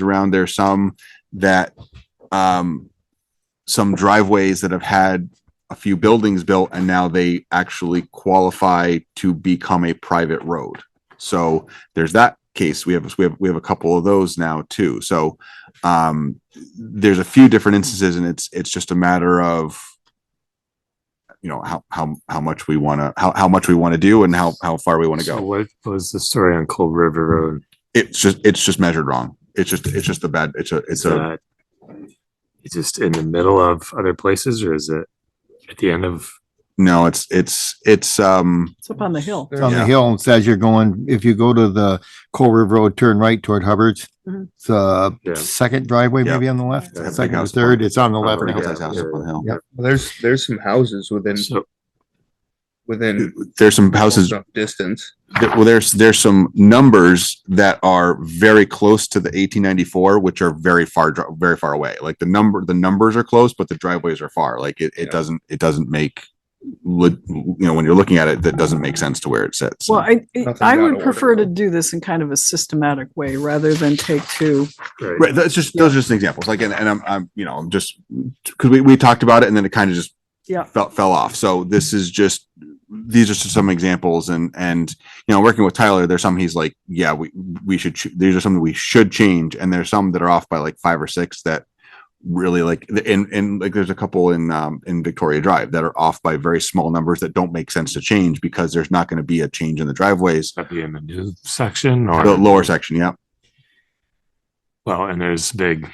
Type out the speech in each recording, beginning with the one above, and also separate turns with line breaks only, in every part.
around there, some that, um, some driveways that have had a few buildings built and now they actually qualify to become a private road. So there's that case. We have, we have, we have a couple of those now too. So, um, there's a few different instances and it's, it's just a matter of, you know, how, how, how much we want to, how, how much we want to do and how, how far we want to
So
go.
What was the story on Cold River Road?
It's just, it's just measured wrong. It's just, it's just a bad, it's a, it's
Is
a,
that just in the middle of other places or is it at the end of?
no, it's, it's, it's, um,
It's up on the hill.
It's on
Yeah.
the hill and says you're going, if you go to the Coal River Road, turn right toward Hubbard's.
Mhm.
It's the
Yeah.
second driveway
Yeah.
maybe on the left,
Yeah, big
second or
house.
third, it's on the left.
Probably,
now.
yeah.
Yeah.
Well, There's, there's some houses within,
So
within.
There's some houses,
close enough Distance.
that- well, there's, there's some numbers that are very close to the eighteen ninety-four, which are very far, dri- very far away. Like the number, the numbers are close, but the driveways are far. Like it,
Yeah.
it doesn't, it doesn't make, lo- you know, when you're looking at it, that doesn't make sense to where it sits.
Well, I,
Nothing's
I
out of
would
order,
prefer to
though.
do this in kind of a systematic way rather than take two.
right.
Right, that's just, those are just examples, like, and, and I'm, I'm, you know, I'm just, because we, we talked about it and then it kind of just
Yeah.
fell, fell off, so this is just, these are just some examples and, and, you know, working with Tyler, there's some he's like, yeah, we, we should, ch- these are some that we should change, and there's some that are off by like five or six that really like, and, and like, there's a couple in, um, in Victoria Drive that are off by very small numbers that don't make sense to change because there's not going to be a change in the driveways,
That'd be in the new section or?
the lower section, yeah.
Well, and there's big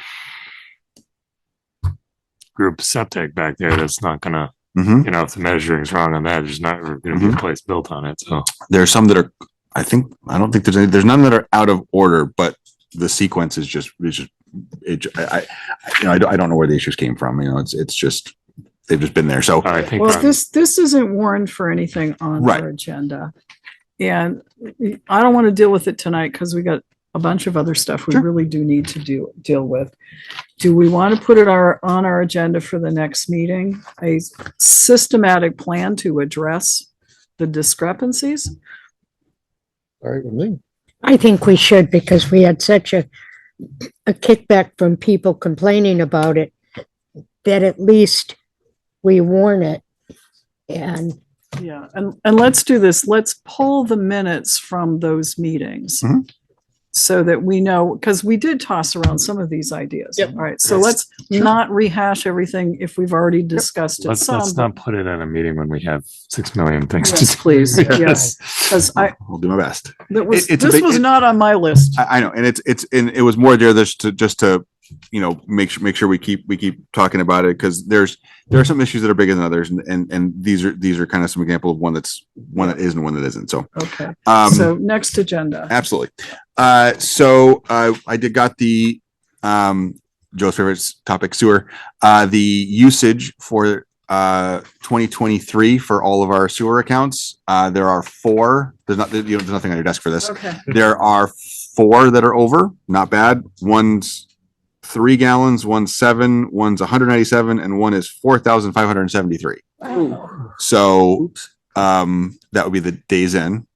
group septic back there that's not gonna,
Mm-hmm.
you know, if the measuring's wrong on that, there's not gonna be a place built on it, so.
there's some that are i think i don't think there's any there's none that are out of order but the sequence is just it's just it ju- i i you know I don't, I don't know where the issues came from you know it's it's just they've just been there so
I think,
Well,
on-
this, this isn't warned for anything on
Right.
our agenda. And I don't want to deal with it tonight because we got a bunch of other stuff we
Sure.
really do need to do, deal with. Do we want to put it our, on our agenda for the next meeting? A systematic plan to address the discrepancies?
All right, with me.
I think we should because we had such a, a kickback from people complaining about it that at least we warn it. And
Yeah, and, and let's do this. Let's pull the minutes from those meetings.
Mhm.
So that we know, because we did toss around some of these ideas.
Yep.
All right, so
Yes.
let's not rehash everything if we've already discussed it
let's,
some.
let's not put it in a meeting when we have six million things to
Yes,
do.
please, yes,
Yes.
because I,
i'll do my best
that was,
it's a
this
big-
was not on my list.
i, I know and it's it's and it was more there just to just to you know make sure make sure we keep we keep talking about it because there's there are some issues that are bigger than others and and, and these are these are kind of some example of one that's one that is and one that isn't so
Okay,
um
so next agenda.
Absolutely. Uh, so uh, I did got the um, Joe's favorite s- topic sewer. Uh, the usage for uh, 2023 for all of our sewer accounts. Uh, there are four. There's not. You know, there's nothing on your desk for this.
Okay,
There are four that are over. Not bad. One's three gallons. One's seven. One's 197, and one is 4,573. So um that would be the days in.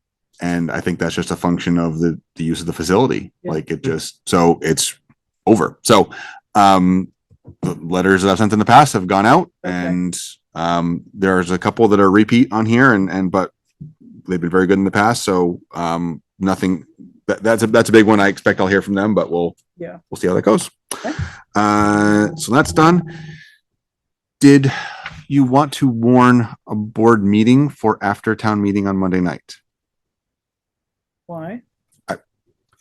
And I think that's just a function of the the use of the facility.
Yeah.
Like it just so it's over. So um the letters that I've sent in the past have gone out
Okay.
and um there's a couple that are repeat on here and and but they've been very good in the past. So um nothing that, that's a that's a big one. I expect I'll hear from them, but we'll
Yeah.
we'll see how that goes.
Okay.
Uh so that's done. Did you want to warn a board meeting for after town meeting on Monday night?
why?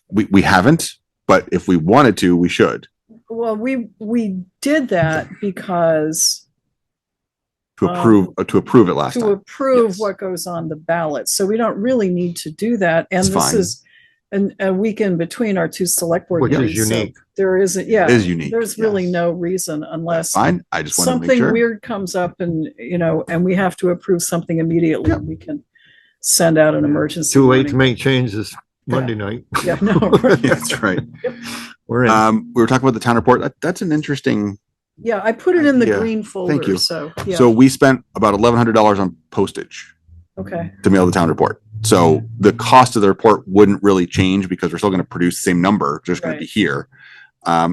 We, we haven't, but if we wanted to, we should
Well, we, we did that because
to
Um,
approve, uh, to approve it last
to
time.
approve
Yes.
what goes on the ballot. So we don't really need to do that. And
It's
this
fine.
is an, a week in between our two select board
Which is
meetings. So
unique.
there isn't,
It
yeah,
is unique.
there's
yeah.
really no reason unless
Fine. I just wanted to make
something
sure.
weird comes up and, you know, and we have to approve something immediately. We can send out an emergency.
Too late to
warning.
make changes
Monday
Monday night.
Yeah, no, right.
Yeah, That's right.
We're in.
Um, we were talking about the town report. That, that's an interesting,
Yeah, I put it in the
Yeah,
green folder,
you.
so, yeah,
so we spent about eleven hundred dollars on postage.
okay.
to mail the town report. So the cost of the report wouldn't really change because we're still going to produce the same number, just going to be
Right.
here. Um,